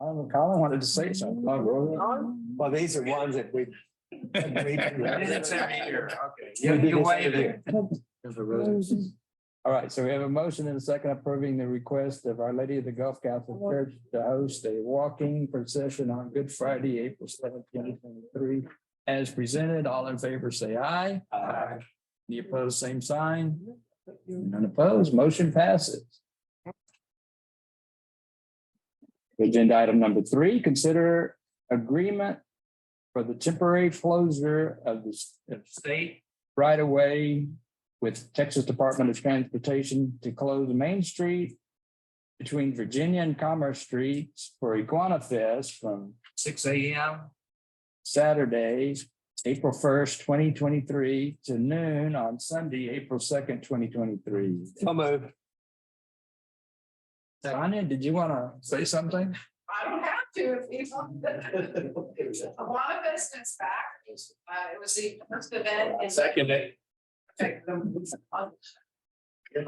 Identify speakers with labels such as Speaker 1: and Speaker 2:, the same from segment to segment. Speaker 1: Um, Colin wanted to say something. Well, these are ones that we.
Speaker 2: It's every year. Okay.
Speaker 1: We do
Speaker 2: You
Speaker 1: this
Speaker 2: waive
Speaker 1: every
Speaker 2: it.
Speaker 1: year. All right, so we have a motion and a second approving the request of Our Lady of the Gulf Catholic Church to host a walking procession on Good Friday, April seventh, twenty twenty-three. As presented, all in favor, say aye.
Speaker 2: Aye.
Speaker 1: Any opposed, same sign. None opposed, motion passes. Agenda item number three, consider agreement for the temporary closure of the s- of state right of way with Texas Department of Transportation to close Main Street between Virginia and Commerce Streets for Iguana Fest from
Speaker 2: Six AM.
Speaker 1: Saturday, April first, twenty twenty-three to noon on Sunday, April second, twenty twenty-three.
Speaker 2: So moved.
Speaker 1: Tanya, did you want to say something?
Speaker 3: I don't have to if you want. A lot of business back. Uh, it was the first event. in-
Speaker 2: Second it.
Speaker 3: We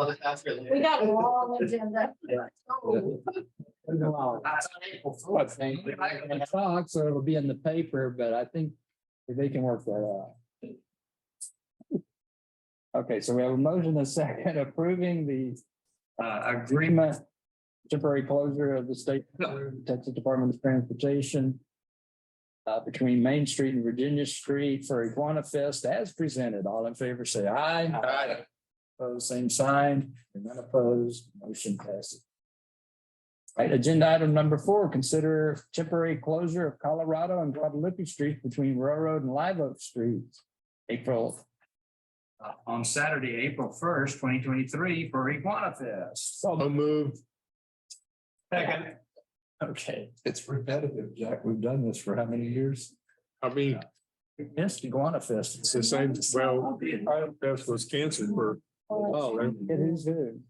Speaker 3: got a long agenda. Oh, that's on April
Speaker 1: What
Speaker 3: 4th.
Speaker 1: thing? So it'll be in the paper, but I think they can work that out. Okay, so we have a motion, a second approving the uh agreement. Temporary closure of the state Texas Department of Transportation. Uh, between Main Street and Virginia Street for Iguana Fest as presented. All in favor, say aye.
Speaker 2: Aye.
Speaker 1: Opposed, same sign, and none opposed, motion passes. Right, agenda item number four, consider temporary closure of Colorado and Guadalupe Street between Railroad and Live Oak Streets. April. uh, on Saturday, April first, twenty twenty-three for Iguana Fest. So
Speaker 2: moved.
Speaker 1: Second. Okay,
Speaker 4: It's repetitive, Jack. We've done this for how many years?
Speaker 5: I mean,
Speaker 1: we missed Iguana Fest.
Speaker 5: it's the same, well, that was canceled for, oh, and
Speaker 1: It is good.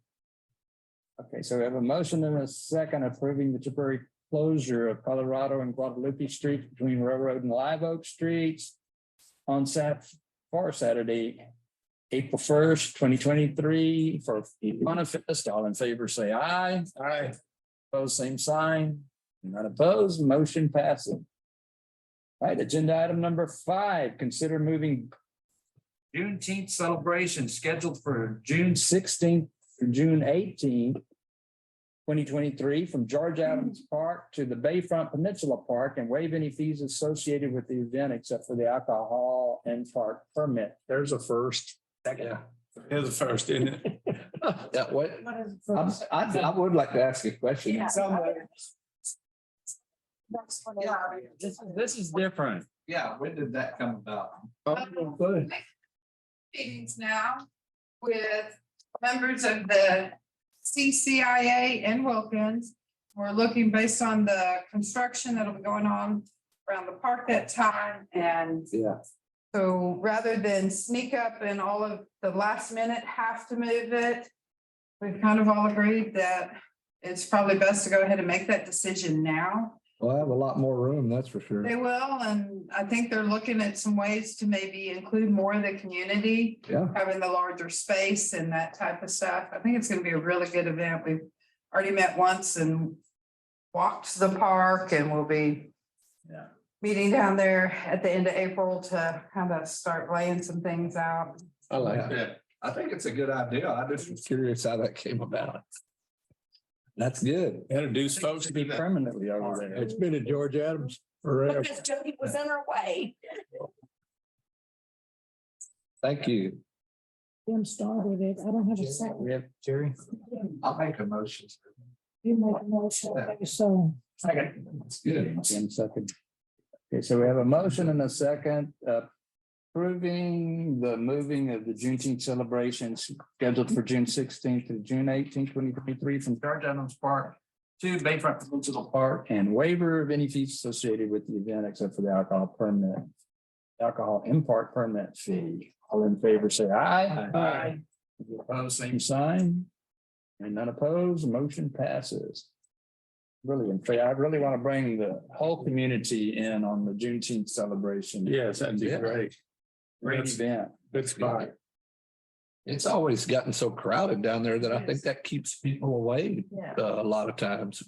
Speaker 1: Okay, so we have a motion and a second approving the temporary closure of Colorado and Guadalupe Street between Railroad and Live Oak Streets on Sat, for Saturday, April first, twenty twenty-three, for manifest, all in favor, say aye. Aye. Opposed, same sign, none opposed, motion passes. All right, agenda item number five, consider moving Juneteenth celebration scheduled for June sixteenth through June eighteenth. Twenty twenty-three from George Adams Park to the Bayfront Peninsula Park and waive any fees associated with the event except for the alcohol and park permit.
Speaker 5: there's a first.
Speaker 1: Second.
Speaker 5: There's a first, isn't it?
Speaker 4: Yeah, what?
Speaker 3: What is-
Speaker 4: I'm- I, I would like to ask a question.
Speaker 3: Yeah. That's what
Speaker 4: Yeah,
Speaker 3: I-
Speaker 1: This, this is different.
Speaker 4: Yeah, when did that come about?
Speaker 3: Meetings now with members of the CCIA in Wilkins. We're looking based on the construction that'll be going on around the park that time and
Speaker 4: Yeah.
Speaker 3: So rather than sneak up and all of the last minute have to move it, we've kind of all agreed that it's probably best to go ahead and make that decision now.
Speaker 4: Well, I have a lot more room, that's for sure.
Speaker 3: They will, and I think they're looking at some ways to maybe include more of the community,
Speaker 4: Yeah.
Speaker 3: having the larger space and that type of stuff. I think it's gonna be a really good event. We've already met once and walked the park and we'll be
Speaker 1: Yeah.
Speaker 3: meeting down there at the end of April to kind of start laying some things out.
Speaker 4: I like that. I think it's a good idea. I just was curious how that came about. That's good.
Speaker 5: Introduce folks.
Speaker 1: Supposed to be permanently over there.
Speaker 5: It's been a George Adams forever.
Speaker 3: Jody was in her way.
Speaker 4: Thank you.
Speaker 6: Jim started it. I don't have a second.
Speaker 1: We have Jerry.
Speaker 4: I'll make a motion.
Speaker 6: You make a motion. Okay, So
Speaker 1: Second.
Speaker 4: That's good.
Speaker 1: Jim second. Okay, so we have a motion and a second uh, approving the moving of the Juneteenth celebrations scheduled for June sixteenth to June 18th, 2023, from George Adams Park to Bayfront Peninsula Park and waiver of any fees associated with the event except for the alcohol permit, alcohol import permit fee. All in favor, say aye.
Speaker 2: Aye.
Speaker 1: Any Opposed, same sign. And none opposed, motion passes. Really, in fact, I really want to bring the whole community in on the Juneteenth celebration.
Speaker 5: Yes, that'd be great.
Speaker 1: Great event.
Speaker 5: That's fine.
Speaker 4: It's always gotten so crowded down there that I think that keeps people away uh, a lot of times.